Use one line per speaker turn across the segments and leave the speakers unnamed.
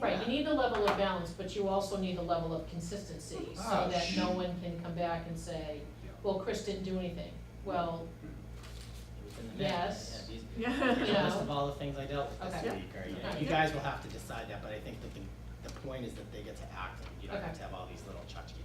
Right, you need a level of balance, but you also need a level of consistency, so
Ah,
that no
shoot.
one can come back and say,
Yeah.
well, Chris didn't do anything. Well,
Within the
Yes.
minute, yeah, these-
Yeah.
Here's a list
No.
of all the things I dealt with
Okay.
this week, or, you know,
Okay.
you guys will have to decide that, but I think that the, the point is that they get to act, and you don't have
Okay.
to have all these little tchotchke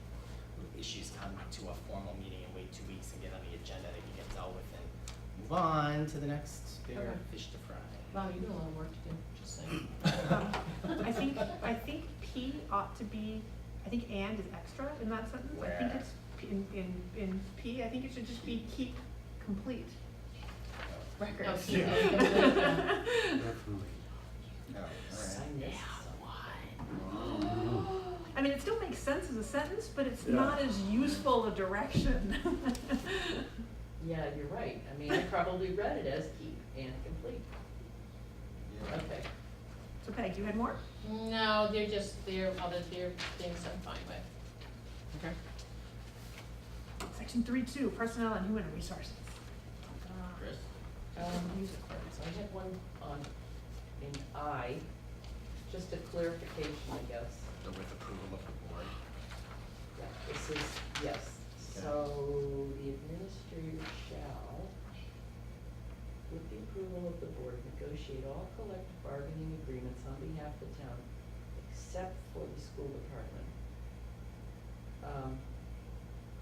issues come to a formal meeting and wait two weeks and get on the agenda that you get dealt with and move on to the next bigger
Okay.
fish to fry.
wow, you got a lot of work to do, just saying.
Um, I think, I think P ought to be, I think and is extra in that sentence, I think
Where?
it's, P- in, in, in P, I think it should just be keep complete
Oh,
records.
keep and complete,
Definitely.
Oh, Sign this one.
I mean, it still makes sense as a sentence, but it's
Yeah.
not as useful a direction.
Yeah, you're right. I mean, I probably read it as keep and complete. Okay.
So Peg, you had more?
No, they're just, they're other, they're things I'm fine with.
Okay.
Section three two, personnel and human resources. God.
Chris?
Um, so I had one on, in I, just a clarification, I guess.
But with approval of the board.
Yeah, this is, yes, so the administrator shall, with the approval of the board, negotiate all collective bargaining agreements on behalf of the town, except for the school department. Um,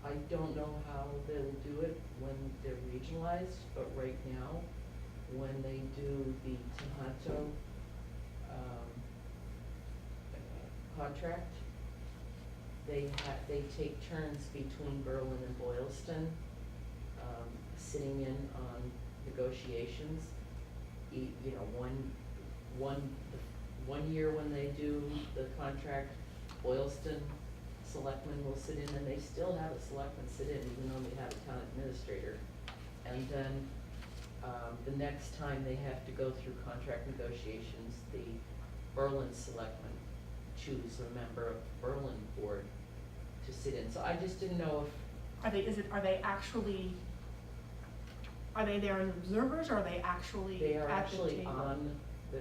I don't know how they'll do it when they're regionalized, but right now, when they do the Tohoto, um, uh, contract, they ha- they take turns between Berlin and Boylston, um, sitting in on negotiations. E- you know, one, one, one year when they do the contract, Boylston selectmen will sit in, and they still have a selectman sit in, even though they have a town administrator. And then, um, the next time they have to go through contract negotiations, the Berlin selectmen choose a member of the Berlin board to sit in. So I just didn't know if,
Are they, is it, are they actually, are they there as observers or are they actually
they are
at the
actually
table?
on the,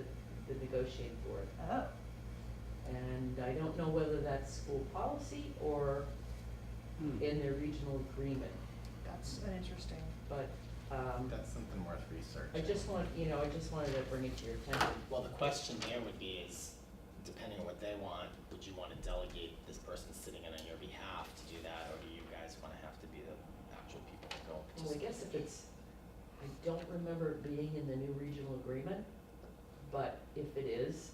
the negotiating board.
Oh,
And I don't know whether that's school policy or in their regional agreement,
that's an interesting,
but, um,
That's something worth researching.
I just want, you know, I just wanted to bring it to your attention.
Well, the question there would be is, depending on what they want, would you wanna delegate this person sitting in on your behalf to do that, or do you guys wanna have to be the actual people that go
Well, I
participate?
guess if it's, I don't remember it being in the new regional agreement, but if it is,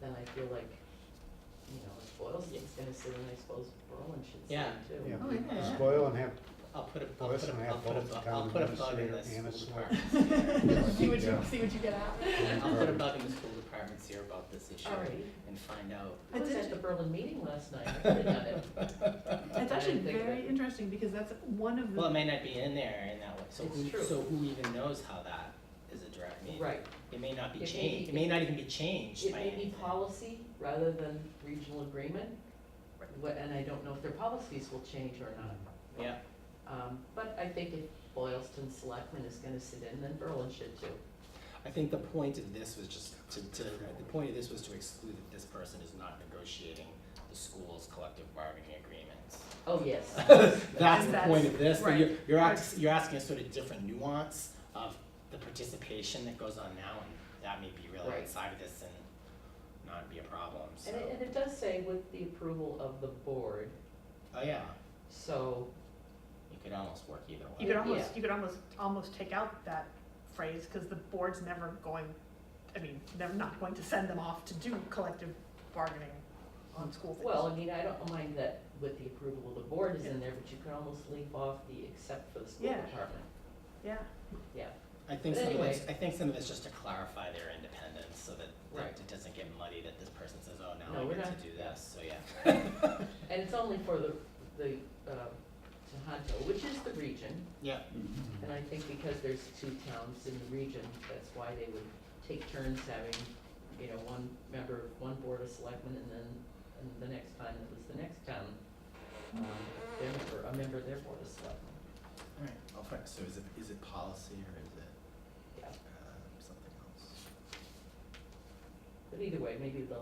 then I feel like, you know, if Boylston's gonna sit in, I suppose Berlin should sit
Yeah.
in too.
Yeah,
Oh, yeah.
just boil and have,
I'll put a, I'll put
Listen, I
a,
have
I'll put a,
both
bu-
the
I'll
town
put a bug in the
administrator and a
school
select-
department.
see what you,
Yeah.
see what you get out.
I'll put a bug in the school department's ear about this issue
Alrighty.
and find out.
I
It's
was at
actu-
the Berlin meeting last night, I could've done it.
It's actually
I didn't think
very
that-
interesting because that's one of
Well, it
the,
may not be in there in that way, so
It's
who,
true.
so who even knows how that is a direct mean?
Right,
It may not be
It may
changed,
be-
it may not even be changed
it
by
may be
anything.
policy rather than regional agreement, wha- and I don't know if their policies will change or not.
Yeah,
Mm-hmm.
Um, but I think if Boylston Selectman is gonna sit in, then Berlin should too.
I think the point of this was just to, to, the point of this was to exclude that this person is not negotiating the school's collective bargaining agreements.
Oh, yes.
That's the point of this, that you're,
Right.
you're ax- you're asking a sort of different nuance of the participation that goes on now, and that may be really
Right.
outside of this and not be a problem, so.
And it, and it does say with the approval of the board,
Oh, yeah,
so,
you could almost work either way.
you could
Yeah.
almost, you could almost, almost take out that phrase because the board's never going, I mean, they're not going to send them off to do collective bargaining on school things.
well, I mean, I don't mind that with the approval of the board is in there, but you could almost leave off the except for the school
Yeah.
department.
Yeah,
Yeah,
I think
But
some of this,
anyway.
I think some of this just to clarify their independence, so that, that
Right.
it doesn't get muddy, that this person says, oh,
No,
now I
we're
get
not-
to do this, so yeah.
and it's only for the, the, uh, Tohoto, which is the region,
Yeah,
and I think because there's two towns in the region, that's why they would take turns having, you know, one member, of one board of selectmen, and then, and the next time it was the next town, um, their member, a member of their board of selectmen,
alright, I'll find, so is it, is it policy or is it,
yeah.
um, something else?
But either way, maybe they'll